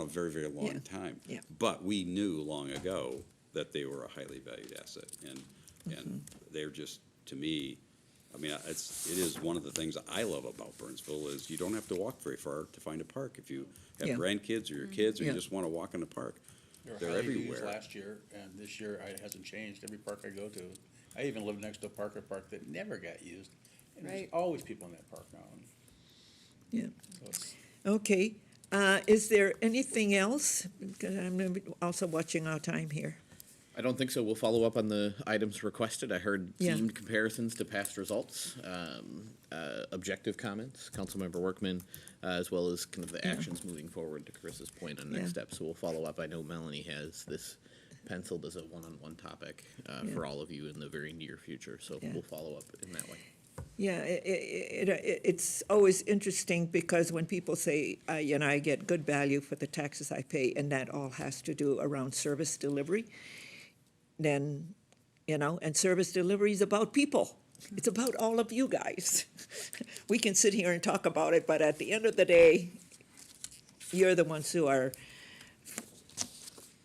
a very, very long time. yeah. But we knew long ago that they were a highly valued asset, and, Mm-hmm. and they're just, to me, I mean, it's, it is one of the things I love about Burnsville is you don't have to walk very far to find a park. If you have Yeah. grandkids or your kids, or you Yeah. just wanna walk in the park, They were they're highly used everywhere. Last year, and this year I- it hasn't changed. Every park I go to, I even live next to a Parker Park that never got used. And there's Right. always people in that park now. and yeah. so it's- Okay, uh, is there anything else? Because I'm also watching our time here. I don't think so. We'll follow up on the items requested. I heard Yeah. themed comparisons to past results, um, uh, objective comments, Councilmember Workman, uh, as well as kind of the actions moving forward to Chris's point on Yeah. next steps. So we'll follow up. I know Melanie has this penciled as a one-on-one topic uh, Yeah. for all of you in the very near future. So Yeah. we'll follow up in that way. Yeah, i- i- it, it, it's always interesting because when people say, uh, you know, I get good value for the taxes I pay, and that all has to do around service delivery, then, you know, and service delivery is about people. It's about all of you guys. We can sit here and talk about it, but at the end of the day, you're the ones who are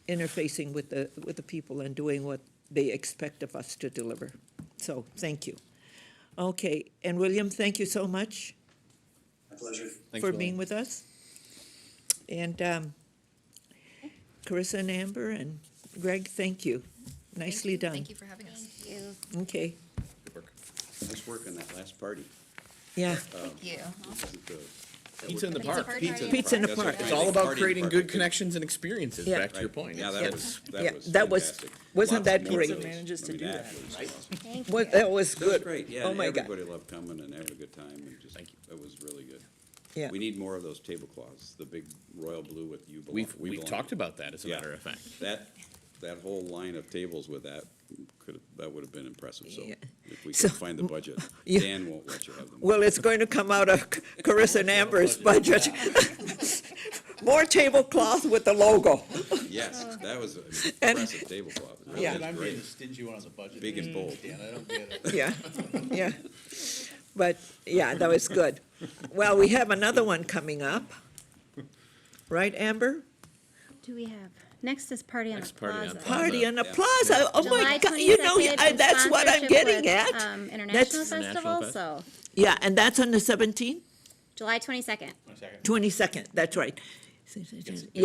interfacing with the, with the people and doing what they expect of us to deliver. So, thank you. Okay, and William, thank you so much My pleasure. Thanks, for William. being with us. And um, Carissa and Amber and Greg, thank you. Nicely done. Thank you for having us. Thank you. Okay, Nice work on that last party. yeah, Thank you. Pizza in the Pizza park. party. Pizza. in the Pizza in the park. That's park. right. It's all about Party creating park. good connections and experiences, Yeah. back to your Right. point. Yeah, Yeah. that was, Yeah, that was that was- fantastic. wasn't Lots that more of great? those. Manages I to mean, do was awesome. Thank you. Well, that was That was good. great, yeah, Oh, and my God. everybody loved coming and having a good time and just, it was really good. Yeah, We need more of those tablecloths, the big royal blue with you belong. We've, We we've Belong. talked about that, as a Yeah. matter of fact. That, that whole line of tables with that could, have that would have been impressive, so Yeah. if we So- can find the budget, Yeah. Dan won't let you have them. well, it's going to come out of Carissa and Amber's budget. More tablecloth with the logo. Yes, that was an And- impressive tablecloth. It really Yeah. was And I'm great. being the stingy one on the budget. Big and bold. Dan, I don't get it. Yeah, yeah. But, yeah, that was good. Well, we have another one coming up. Right, Amber? do we have? Next is Party on the Next Party on Plaza. the Plaza. Party in the Yeah. plaza. Oh, my July God, you know, 22nd I- in that's what I'm sponsorship getting with, at. Um, International That's- Festival, International so Yeah, and that's on the seventeenth, July twenty-second. One second. twenty-second, that's right. Yeah,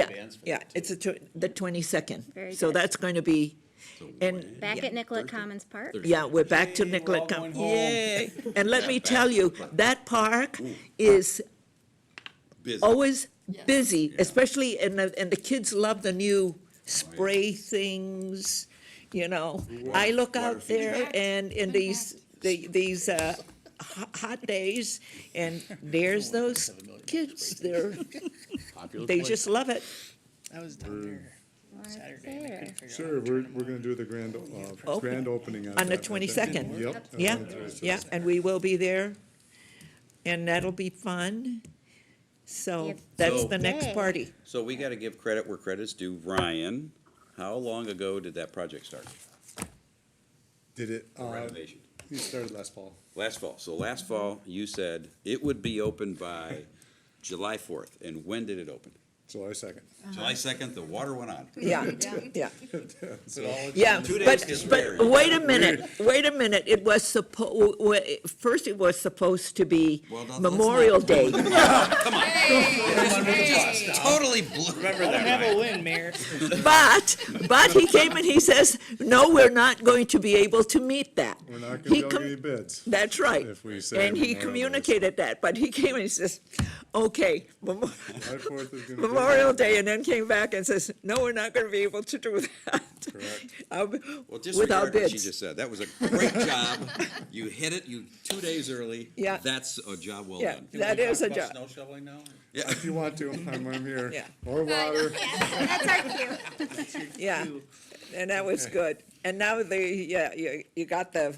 bands for yeah, that, too. it's the tw- the twenty-second. Very So good. that's going to be, So we and- went in. Back Yeah. at Nicollet Commons Park. yeah, we're back to Yay, we're all Nicollet going County. home. Yay. And let me tell you, that park is Busy. always busy, especially, and the, and the kids love the new spray things, you know. I look water out there feature. and in these, the- these, uh, ho- hot days, and there's those kids, they're, Popular they place. just love it. I was down there Why is Saturday and I there? couldn't figure out. Sure, how to we're, turn 'em we're on. gonna do the grand, uh, Open. grand opening on On the that. 22nd. Yep. Uh, Yeah, Oh, that's right. yeah, and we will be there, and that'll be fun. So Yep. that's So- the next Yay. party. So we gotta give credit where credit's due. Ryan, how long ago did that project start? Did it, uh, Renovation. we started last fall. Last fall. So last fall, you said it would be open by July fourth, and when did it open? July second. Uh-huh. July second, the water went on. Yeah, yeah. So Yeah, Two but, days to but spare. wait a minute, wait a minute, it was suppo, wa- first it was supposed to be Well, now let's not- Memorial Day. Totally blew. I don't have a win, Mayor. But, but he came and he says, no, we're not going to be able to meet that. we're not He gonna be able to com- get any bids. That's right. If we say And he Memorial Day. communicated that, but he came and he says, okay, Memo- July 4th is gonna be- Memorial Day, and then came back and says, no, we're not gonna be able to do that. Correct. Um, Well, Without disregard what she bids. just said. That was a great job. You hit it, you, two days early. Yeah. That's a job well Yeah. done. Can That we is talk a about job. Snow shoveling now? If you want to, I'm, I'm here. Yeah. More water. That's our cue. Yeah, and that was good. And now they, yeah, you, you got the,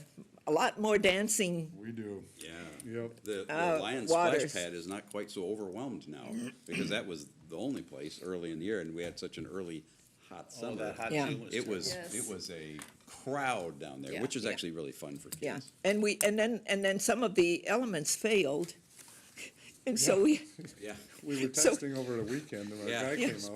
a lot more dancing. We do, Yeah. yep. The, the Uh, Lions waters. splash pad is not quite so overwhelmed now, because that was the only place early in the year, and we had such an early, hot All summer. that hot Yeah. June was. It was, Yes. it was a crowd down there, Yeah. which was Yeah. actually really fun for kids. Yeah, and we, and then, and then some of the elements failed. And so we, Yeah. We were So- testing over the weekend and our Yeah. guy Yeah. came out.